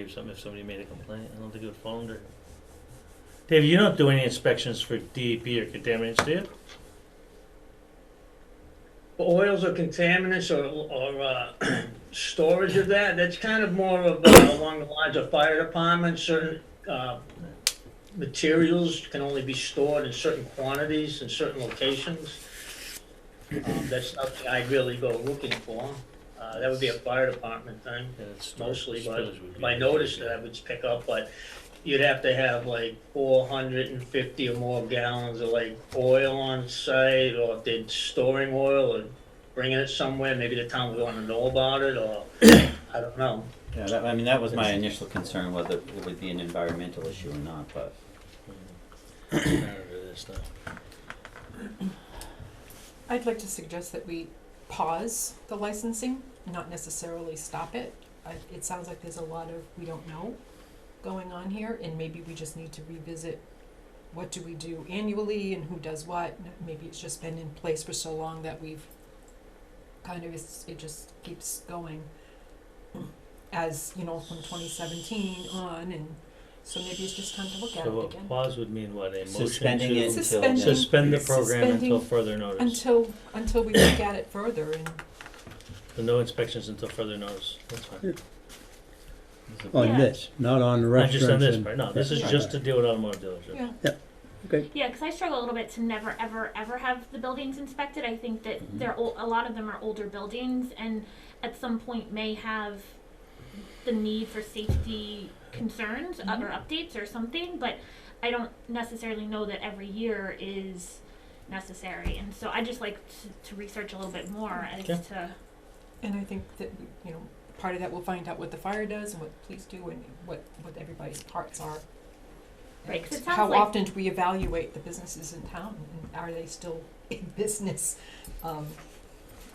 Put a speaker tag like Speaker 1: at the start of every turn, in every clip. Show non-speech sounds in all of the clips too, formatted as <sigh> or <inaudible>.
Speaker 1: or something if somebody made a complaint. I don't think it would fall under. Dave, you don't do any inspections for DEP or contaminants, do you?
Speaker 2: oils or contaminants or, or, uh, <clears throat> storage of that, that's kind of more of, uh, along the lines of fire departments, certain, uh, materials can only be stored in certain quantities in certain locations. Um, that's something I really go looking for, uh, that would be a fire department thing
Speaker 1: Yeah, it's-
Speaker 2: mostly, but
Speaker 1: spillage would be-
Speaker 2: my notice that I would pick up, but you'd have to have like four hundred and fifty or more gallons of like oil on site, or if they're storing oil or bringing it somewhere, maybe the town would wanna know about it, or, I don't know.
Speaker 3: Yeah, that, I mean, that was my initial concern, whether it would be an environmental issue or not, but
Speaker 1: I don't know this
Speaker 4: <coughs>
Speaker 1: stuff.
Speaker 4: I'd like to suggest that we pause the licensing, not necessarily stop it. I, it sounds like there's a lot of we don't know going on here, and maybe we just need to revisit what do we do annually and who does what. and Maybe it's just been in place for so long that we've kind of it's, it just keeps going as you know from 2017 on, and so maybe it's just time to look at
Speaker 1: So
Speaker 4: it
Speaker 1: a
Speaker 4: again
Speaker 1: pause would mean what, a motion
Speaker 3: suspending it
Speaker 1: to
Speaker 3: until
Speaker 4: Suspending-
Speaker 3: then.
Speaker 1: suspend the program until
Speaker 4: Suspending
Speaker 1: further notice?
Speaker 4: until until we look at it further and.
Speaker 1: So No inspections until further notice, that's fine.
Speaker 5: On Oh,
Speaker 6: Yeah.
Speaker 5: this, not on the
Speaker 1: Not just on
Speaker 5: restaurants
Speaker 1: this
Speaker 5: and-
Speaker 1: part, no, this is
Speaker 5: Yeah.
Speaker 1: just to deal with automotive dealership.
Speaker 4: Yeah.
Speaker 6: Yeah, because I struggle a little bit to never, ever, ever have the buildings inspected. I think that
Speaker 3: Mhm.
Speaker 6: they're ol- a lot of them are older buildings, and at some point may have the need for safety concerns uh, or updates or something. But I don't necessarily know that every year is necessary, and so I just like to, to research a little bit more as
Speaker 1: Okay.
Speaker 6: to
Speaker 4: And I think that, you know, part of that we'll find out what the fire does and what the police do and what, what everybody's parts are.
Speaker 6: Right, 'cause it
Speaker 4: And
Speaker 6: sounds
Speaker 4: How
Speaker 6: like-
Speaker 4: often do we evaluate the businesses in town and are they still <laughs> in business? Um,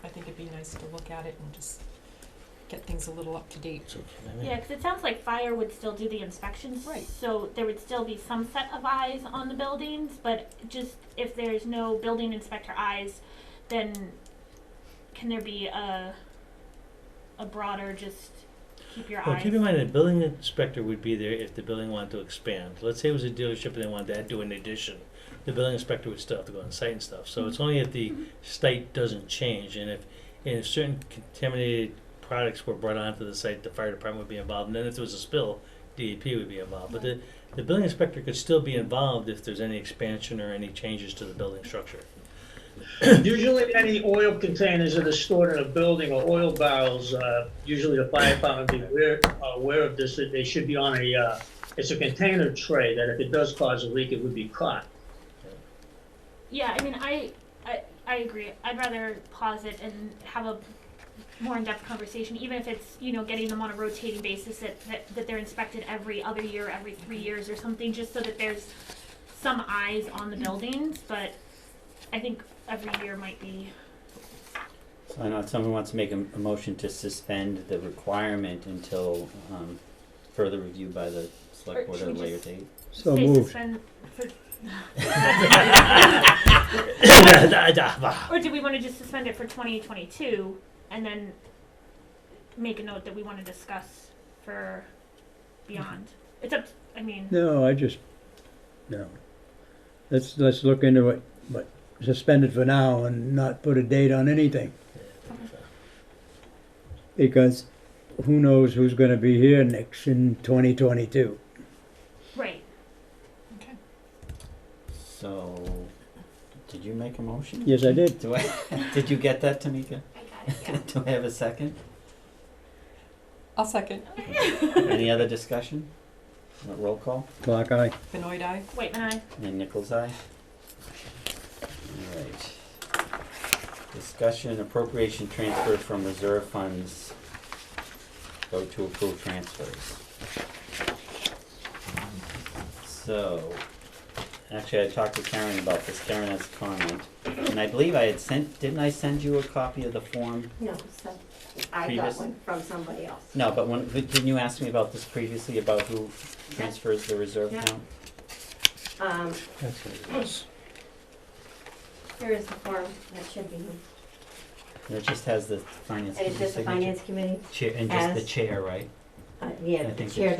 Speaker 4: I think it'd be nice to look at it and just get things a little up to date.
Speaker 1: It's okay, I mean,
Speaker 6: Yeah, because it sounds like fire would still do the inspections.
Speaker 4: Right.
Speaker 6: So there would still be some set of eyes on the buildings, but just if there's no building inspector eyes, then can there be a, a broader just keep your
Speaker 1: Well,
Speaker 6: eyes?
Speaker 1: keep in mind, the building inspector would be there if the building wanted to expand. Let's say it was a dealership and they wanted to do an addition. The building inspector would still have to go on site and stuff. So it's only if the site doesn't change and if, and if certain contaminated products were brought onto the site, the fire department would be involved. And then if there was a spill, DEP would be involved. But the, the building inspector could still be involved if there's any expansion or any changes to the building structure.
Speaker 2: <coughs> Usually any oil containers that are stored in a building or oil barrels, uh, usually the fire department be aware, aware of this, that they should be on a, uh, it's a container tray, that if it does cause a leak, it would be caught.
Speaker 6: Yeah, I mean, I, I, I agree. I'd rather pause it and have a more in-depth conversation, even if it's, you know, getting them on a rotating basis that, that, that they're inspected every other year, every three years or something, just so that there's some eyes on the buildings, but I think every year might be,
Speaker 3: So I know if someone wants to make a, a motion to suspend the requirement until, um, further review by the
Speaker 6: Or
Speaker 3: select board at
Speaker 6: should
Speaker 3: a
Speaker 6: we
Speaker 3: later
Speaker 6: just-
Speaker 3: date.
Speaker 5: So
Speaker 6: say
Speaker 5: moved.
Speaker 6: suspend for,
Speaker 1: Well,
Speaker 6: or do we wanna just suspend it for twenty twenty-two and then make a note that we wanna discuss for beyond? It's up, I mean.
Speaker 5: No, I just, no. Let's, let's look into it, but suspend it for now and not put a date on anything. Because who knows who's gonna be here next in twenty twenty-two.
Speaker 6: Right.
Speaker 4: Okay.
Speaker 3: So, did you make a motion?
Speaker 5: Yes, I did.
Speaker 3: Do I, <laughs> did you get that, Tamika?
Speaker 6: I got
Speaker 3: <laughs>
Speaker 6: it.
Speaker 3: Do I have a
Speaker 6: <laughs>
Speaker 3: second?
Speaker 4: I'll second.
Speaker 3: Any other discussion? Uh, Roll call,
Speaker 5: Clock eye.
Speaker 4: Benoit, aye.
Speaker 6: Wait, and I.
Speaker 3: and Nichols' eye? Alright. Discussion appropriation transfer from reserve funds. Go to approve transfers. So, actually, I talked to Karen about this, Karen has a comment, and I believe I had sent, didn't I send you a copy of the form?
Speaker 7: No, so I got
Speaker 3: Previous-
Speaker 7: one from somebody else.
Speaker 3: No, but when, didn't you ask me about this previously, about who transfers the reserve
Speaker 7: Yeah.
Speaker 3: account?
Speaker 7: Um, here is the form that should be, used.
Speaker 3: And it just has the finance
Speaker 7: and
Speaker 3: committee
Speaker 7: it's just the
Speaker 3: signature.
Speaker 7: finance committee.
Speaker 3: Chair, and just the
Speaker 7: as-
Speaker 3: chair, right?
Speaker 8: uh, yeah,
Speaker 7: I
Speaker 8: the
Speaker 7: think
Speaker 8: chair
Speaker 7: it's-